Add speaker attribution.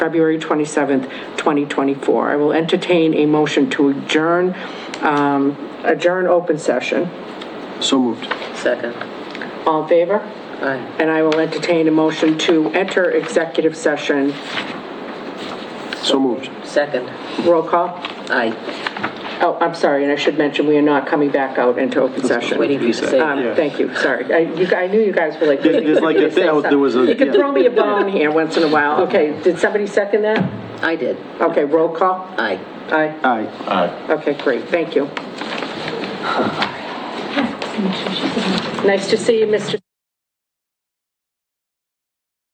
Speaker 1: February 27th, 2024. I will entertain a motion to adjourn, um, adjourn open session.
Speaker 2: So moved.
Speaker 3: Second.
Speaker 1: All in favor?
Speaker 3: Aye.
Speaker 1: And I will entertain a motion to enter executive session.
Speaker 2: So moved.
Speaker 3: Second.
Speaker 1: Roll call.
Speaker 3: Aye.
Speaker 1: Oh, I'm sorry, and I should mention, we are not coming back out into open session.
Speaker 3: Waiting for you to say.
Speaker 2: Reset.
Speaker 1: Um, Thank you, sorry. I you- I knew you guys were like.
Speaker 2: Yeah, there's like a-
Speaker 1: Say something.
Speaker 2: there was a-
Speaker 1: You could
Speaker 2: yeah.
Speaker 1: throw me a bone here once in a while. Okay, did somebody second that?
Speaker 3: I did.
Speaker 1: Okay, roll call.
Speaker 3: Aye.
Speaker 1: Aye.
Speaker 2: Aye.
Speaker 1: Okay, great, thank you. Nice to see you, Mr.